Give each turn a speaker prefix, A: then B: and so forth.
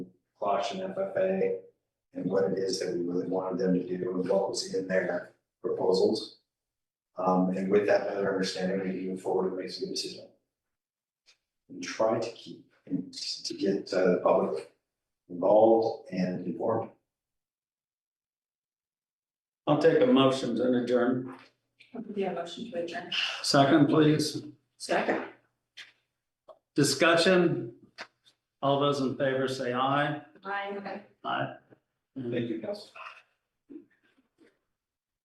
A: Caution FFA and what it is that we really wanted them to do and what was in their proposals. Um, and with that better understanding, we can move forward and make some decision. And try to keep, to get uh, the public involved and informed.
B: I'll take a motion to adjourn.
C: Do a motion to adjourn?
B: Second, please.
C: Second.
B: Discussion. All those in favor say aye.
C: Aye.
B: Aye.
A: Thank you, council.